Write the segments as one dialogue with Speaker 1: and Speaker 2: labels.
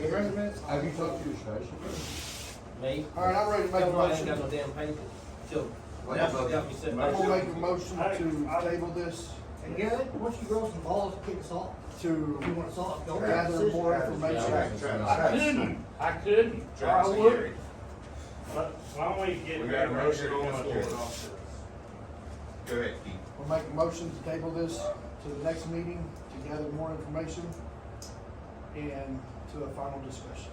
Speaker 1: residents? Have you talked to your treasurer?
Speaker 2: Me?
Speaker 1: All right, I'm ready to make a
Speaker 2: Tell me I ain't
Speaker 1: motion.
Speaker 2: got no damn paper. Till,
Speaker 1: Wait,
Speaker 2: that's
Speaker 1: look.
Speaker 2: what got me sitting
Speaker 1: I'm
Speaker 2: back.
Speaker 1: gonna make a motion to table this,
Speaker 3: And Garrett, once you grow some balls, kick us off.
Speaker 1: to
Speaker 3: If you want us off, don't have
Speaker 1: gather more
Speaker 4: Yeah.
Speaker 1: information.
Speaker 5: I couldn't, I couldn't, or I would, but why don't we get.
Speaker 4: We got a motion on the
Speaker 5: back
Speaker 4: floor.
Speaker 5: to officer?
Speaker 4: Go ahead, Keith.
Speaker 1: We'll make a motion to table this to the next meeting, to gather more information and to a final discussion.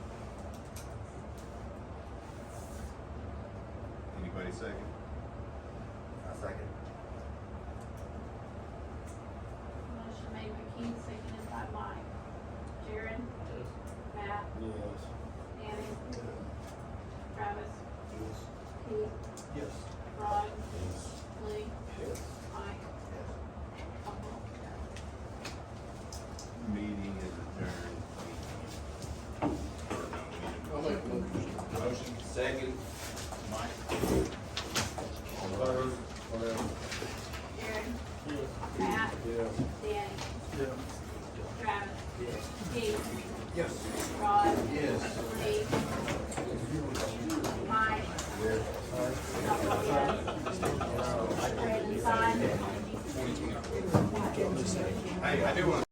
Speaker 4: Anybody second? I second.
Speaker 6: Motion made by Keith, seconded by Mike. Jared? Matt? Danny? Travis? Keith?
Speaker 1: Yes.
Speaker 6: Ron? Lee? Mike? I'll vote yes.
Speaker 4: Meeting is
Speaker 1: I'll make a motion.
Speaker 4: adjourned. Motion second. Mike. All those.
Speaker 6: Jared? Matt? Danny? Travis? Keith?
Speaker 1: Yes.
Speaker 6: Ron?
Speaker 4: Yes.
Speaker 6: Lee? Mike? I'll vote yes. Brandon Sine?
Speaker 4: Hey, I do want